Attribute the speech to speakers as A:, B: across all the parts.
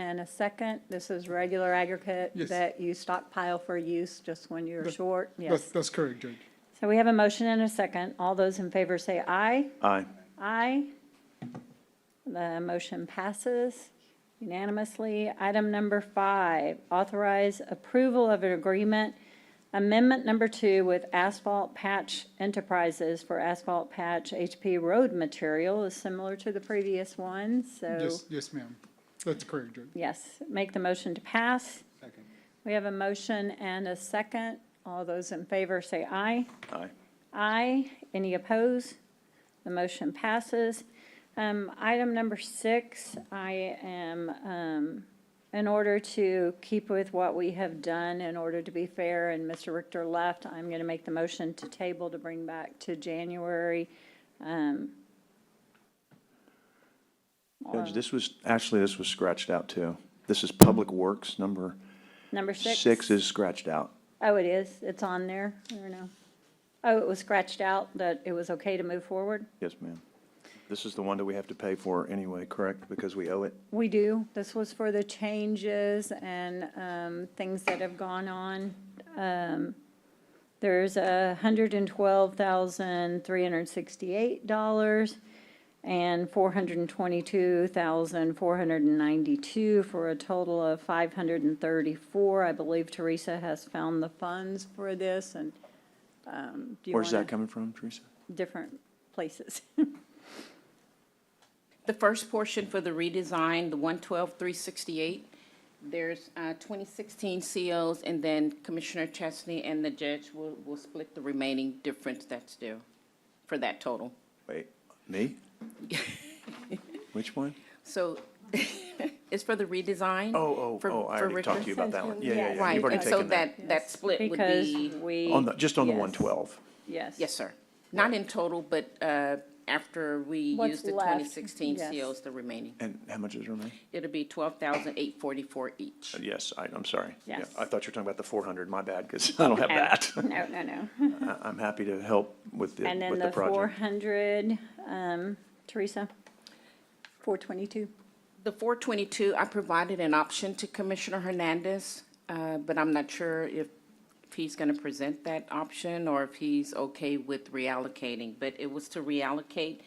A: And a second, this is regular aggregate
B: Yes.
A: that you stockpile for use just when you're
B: That-
A: short,
B: That's,
A: yes.
B: that's correct, Judge.
A: So we have a motion and a second. All those in favor say aye.
C: Aye.
A: Aye. The motion passes unanimously. Item number five, authorize approval of an agreement, amendment number two with Asphalt Patch Enterprises for asphalt patch HP road material is similar to the previous one, so
B: Yes, yes, ma'am. That's correct, Judge.
A: yes, make the motion to pass.
B: Second.
A: We have a motion and a second. All those in favor say aye.
C: Aye.
A: Aye. Any opposed? The motion passes. Um, Item number six, I am, um, in order to keep with what we have done, in order to be fair, and Mr. Richter left, I'm going to make the motion to table to bring back to January. Um,
C: Judge, this was, actually, this was scratched out too. This is Public Works, number
A: Number six?
C: six is scratched out.
A: Oh, it is. It's on there. I don't know. Oh, it was scratched out that it was okay to move forward?
C: Yes, ma'am. This is the one that we have to pay for anyway, correct? Because we owe it?
A: We do. This was for the changes and um, things that have gone on. Um, There's a hundred and twelve thousand, three hundred and sixty-eight dollars and four hundred and twenty-two thousand, four hundred and ninety-two for a total of five hundred and thirty-four. I believe Teresa has found the funds for this and um, do you want
C: Where's that coming from, Teresa?
A: Different places.
D: The first portion for the redesign, the one twelve, three sixty-eight, there's, uh, twenty sixteen COs, and then Commissioner Chesney and the judge will, will split the remaining difference that's due for that total.
C: Wait, me? Which one?
D: So, it's for the redesign.
C: Oh, oh,
D: for-
C: oh, I
D: for
C: already talked to
D: Richter.
C: you about that one. Yeah, yeah, yeah.
D: Right,
C: You've already
D: and so
C: taken that.
D: that, that split would
A: Because
D: be,
A: we.
C: On the, just on the
A: yes,
C: one twelve.
A: Yes.
D: yes, sir. Not in total, but, uh, after we
A: What's
D: use the
A: left,
D: twenty sixteen
A: yes.
D: COs, the remaining.
C: And how much is it remaining?
D: It'll be twelve thousand, eight forty-four each.
C: Yes, I, I'm sorry. Yeah,
A: Yes.
C: I thought you were talking about the four hundred. My bad, because I don't have that.
A: No, no, no.
C: I- I'm happy to help with the,
A: And then
C: with the
A: the four
C: project.
A: hundred, um, Teresa? Four twenty-two.
D: The four twenty-two, I provided an option to Commissioner Hernandez, uh, but I'm not sure if, if he's gonna present that option or if he's okay with reallocating, but it was to reallocate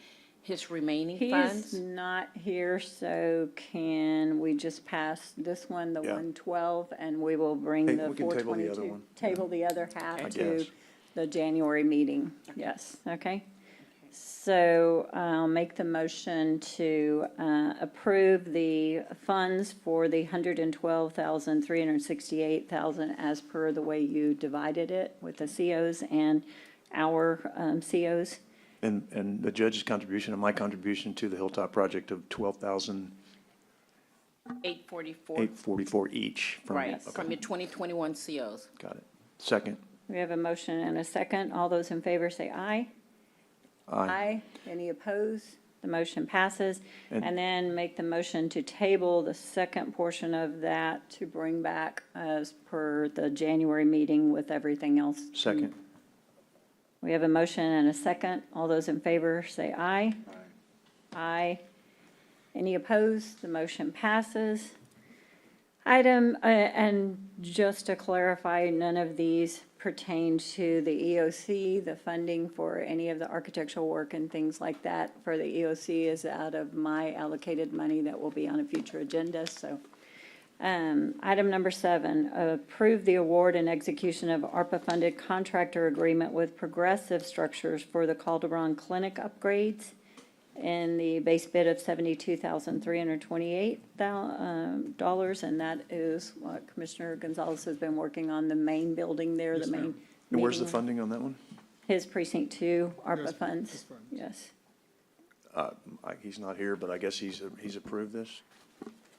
D: his remaining
A: He's
D: funds.
A: not here, so can we just pass this one, the
C: Yeah.
A: one twelve, and we will bring
C: Hey,
A: the
C: we can
A: four
C: table the other
A: twenty-two?
C: one.
A: Table the other
D: Okay.
A: half
C: I
A: to
C: guess.
A: the January meeting, yes, okay? So I'll make the motion to uh, approve the funds for the hundred and twelve thousand, three hundred and sixty-eight thousand as per the way you divided it with the COs and our um, COs.
C: And, and the judge's contribution and my contribution to the Hilltop project of twelve thousand
D: Eight forty-four,
C: eight forty-four each from.
D: right,
C: okay,
D: from your twenty twenty-one COs.
C: Got it. Second.
A: We have a motion and a second. All those in favor say aye.
C: Aye.
A: Any opposed? The motion passes.
C: And-
A: And then make the motion to table the second portion of that to bring back as per the January meeting with everything else.
C: Second.
D: Mm-hmm.
A: We have a motion and a second. All those in favor say aye. Aye. Aye. Any opposed? The motion passes. Item, uh, and just to clarify, none of these pertain to the EOC. The funding for any of the architectural work and things like that for the EOC is out of my allocated money that will be on a future agenda, so. Um, Item number seven, approve the award and execution of ARPA-funded contractor agreement with Progressive Structures for the Calderon Clinic upgrades in the base bid of seventy-two thousand, three hundred twenty-eight um, dollars, and that is what Commissioner Gonzalez has been working on, the main building there, the
B: Yes,
A: main.
B: ma'am.
C: And where's the
A: meeting room.
C: funding on that one?
A: His precinct two, ARPA
B: Yes,
A: funds,
B: his funds.
A: yes.
C: I- He's not here, but I guess he's, he's approved this.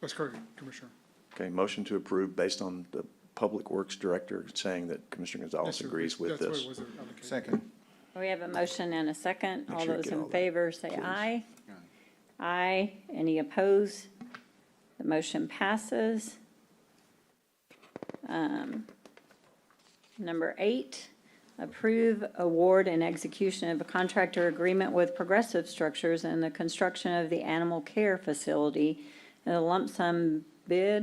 B: That's correct, Commissioner.
C: Okay, motion to approve based on the Public Works Director saying that Commissioner
B: Yes,
C: Gonzalez
B: sir.
C: agrees with
B: That's what
C: this.
B: it was allocated.
E: Second.
A: We have a motion and a second.
C: Make
A: All
C: sure you
A: those
C: get all
A: in
C: that,
A: favor, say
C: please.
A: aye. Aye. Any opposed? The motion passes. Um, Number eight, approve award and execution of a contractor agreement with Progressive Structures and the construction of the animal care facility in a lump sum bid